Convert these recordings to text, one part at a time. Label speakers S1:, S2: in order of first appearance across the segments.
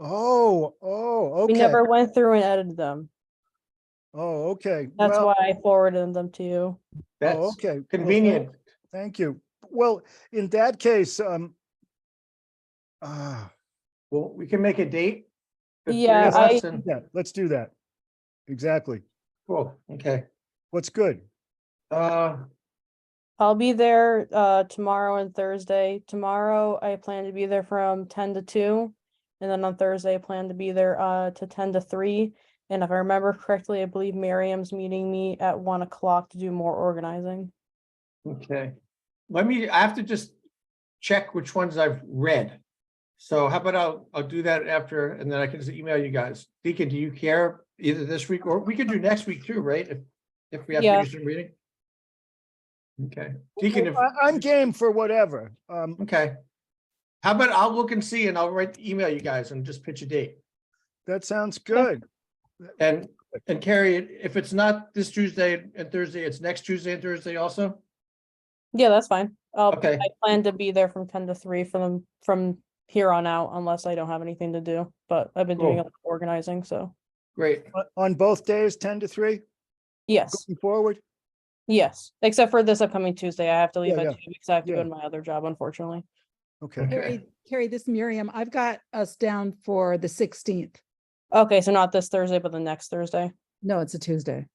S1: Oh, oh,
S2: We
S1: okay.
S2: never went through and edited them.
S1: Oh, okay.
S2: That's
S1: Well,
S2: why I forwarded them to you.
S1: Oh,
S3: That's
S1: okay. Well,
S3: convenient.
S1: Thank you. Well, in that case, um, ah,
S3: Well, we can make a date. the three
S2: Yeah,
S3: of us
S2: I-
S3: and-
S1: yeah, let's do that. Exactly.
S3: Cool, okay.
S1: What's good?
S3: Uh,
S2: I'll be there uh tomorrow and Thursday. Tomorrow, I plan to be there from ten to two. And then on Thursday, I plan to be there uh to ten to three. And if I remember correctly, I believe Miriam's meeting me at one o'clock to do more organizing.
S3: okay. Let me, I have to just check which ones I've read. So how about I'll, I'll do that after, and then I can just email you guys. Deacon, do you care either this week or we could do next week too, right? If, if we have
S2: Yeah.
S3: to do some reading? Okay, Deacon, if,
S1: I- I'm game for whatever. Um,
S3: okay. How about I'll look and see and I'll write, email you guys and just pitch a date.
S1: that sounds good.
S3: And, and Carrie, if it's not this Tuesday and Thursday, it's next Tuesday and Thursday also?
S2: Yeah, that's fine. Uh,
S3: Okay.
S2: I plan to be there from ten to three from from here on out unless I don't have anything to do, but I've been doing a
S3: Cool.
S2: lot of organizing, so
S3: Great.
S1: O- On both days, ten to three,
S2: yes,
S1: going forward?
S2: yes, except for this upcoming Tuesday, I have to leave
S1: Yeah,
S2: at
S1: yeah.
S2: two because I have to go
S1: Yeah.
S2: to my other job, unfortunately.
S1: Okay.
S3: Okay.
S4: Carrie, Carrie, this Miriam, I've got us down for the sixteenth.
S2: Okay, so not this Thursday, but the next Thursday.
S4: No, it's a Tuesday.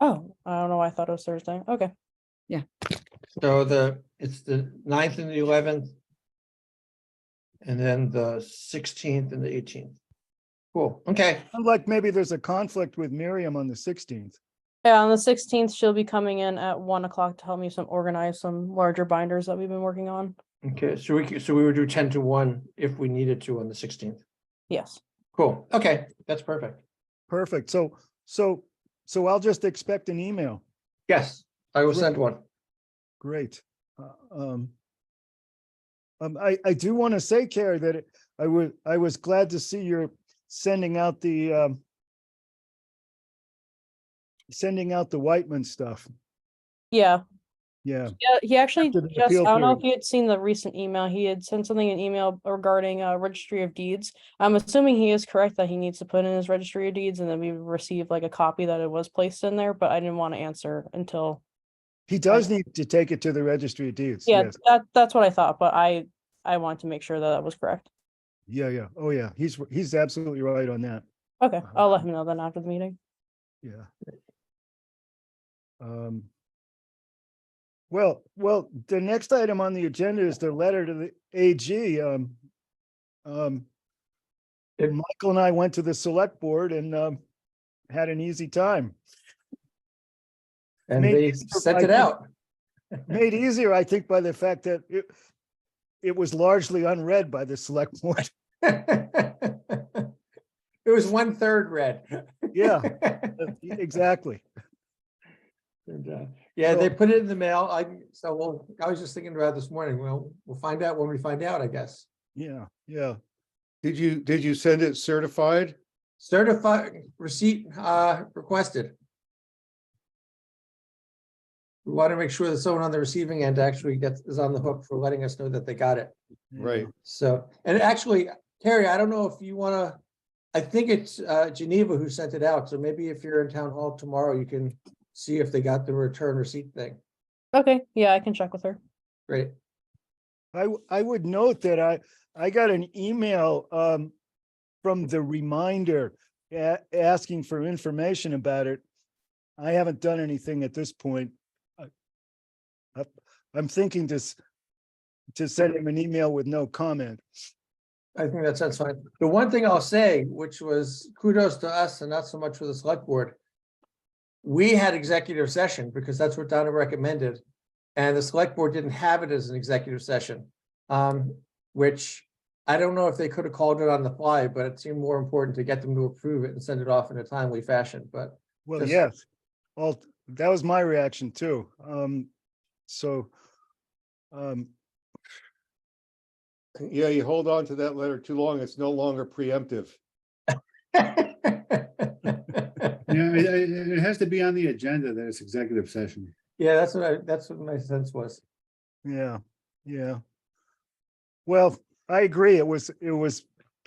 S2: Oh, I don't know why I thought it was Thursday. Okay,
S3: So the, it's the ninth and the eleventh. And then the sixteenth and the eighteenth. Cool, okay,
S1: Unlike maybe there's a conflict with Miriam on the sixteenth.
S2: yeah, on the sixteenth, she'll be coming in at one o'clock to help me some organize some larger binders that we've been working on.
S3: okay, so we, could- so we would do ten to one if we needed to on the sixteenth.
S2: Yes,
S3: Cool, okay, that's perfect.
S1: Perfect. So, so, so I'll just expect an email.
S3: Yes, I will send one.
S1: Great. Uh, Um, um, I, I do want to say, Carrie, that it- I was, I was glad to see you're sending out the, um, sending out the Whitman stuff.
S2: yeah,
S1: Yeah.
S2: Yeah, he actually
S1: After the
S2: just, I
S1: appeal
S2: don't know
S1: period.
S2: if you had seen the recent email, he had sent something an email regarding uh registry of deeds. I'm assuming he is correct that he needs to put in his registry of deeds and then we receive like a copy that it was placed in there, but I didn't want to answer until.
S1: He does need to take it to the registry of deeds.
S2: Yeah,
S1: yes.
S2: that, that's what I thought, but I, I want to make sure that that was correct.
S1: Yeah, yeah. Oh, yeah. He's, he's absolutely right on that.
S2: Okay, I'll
S1: Uh-huh.
S2: let him know then after the meeting.
S1: Yeah. Um. Well, well, the next item on the agenda is the letter to the AG, um. Um.
S3: It-
S1: Michael and I went to the select board and, um, had an easy time.
S3: And
S1: Maybe
S3: they
S1: so
S3: sent
S1: I
S3: it
S1: can-
S3: out.
S1: Made easier, I think, by the fact that it, it was largely unread by the select board.
S3: It was one third red.
S1: Yeah, uh, e- exactly.
S3: And, uh, Yeah, they
S1: So-
S3: put it in the mail. I, so we'll I was just thinking about it this morning. Well, we'll find out when we find out, I guess.
S1: Yeah, yeah.
S5: Did you, did you send it certified?
S3: Certified receipt, uh, requested. We want to make sure that someone on the receiving end actually gets, is on the hook for letting us know that they got it.
S1: yeah.
S5: Right.
S3: So, and actually, Terry, I don't know if you want to, I think it's, uh, Geneva who sent it out. So maybe if you're in town hall tomorrow, you can see if they got the return receipt thing.
S2: Okay, yeah, I can check with her.
S3: Great.
S1: I, w- I would note that I, I got an email, um, from the reminder, a- asking for information about it. I haven't done anything at this point. I- I- I'm thinking to, s- to send him an email with no comment.
S3: I think that sounds fine. The one thing I'll say, which was kudos to us and not so much for the select board. We had executive session because that's what Donna recommended. And the select board didn't have it as an executive session. Um, which I don't know if they could have called it on the fly, but it seemed more important to get them to approve it and send it off in a timely fashion, but.
S1: Well,
S3: Yes.
S1: yes, all, that was my reaction too. Um, so, um,
S5: Yeah, you hold on to that letter too long, it's no longer preemptive.
S6: Yeah, it, it it has to be on the agenda that it's executive session.
S3: Yeah, that's what I, that's what my sense was.
S1: Yeah, yeah. Well, I agree. It was, it was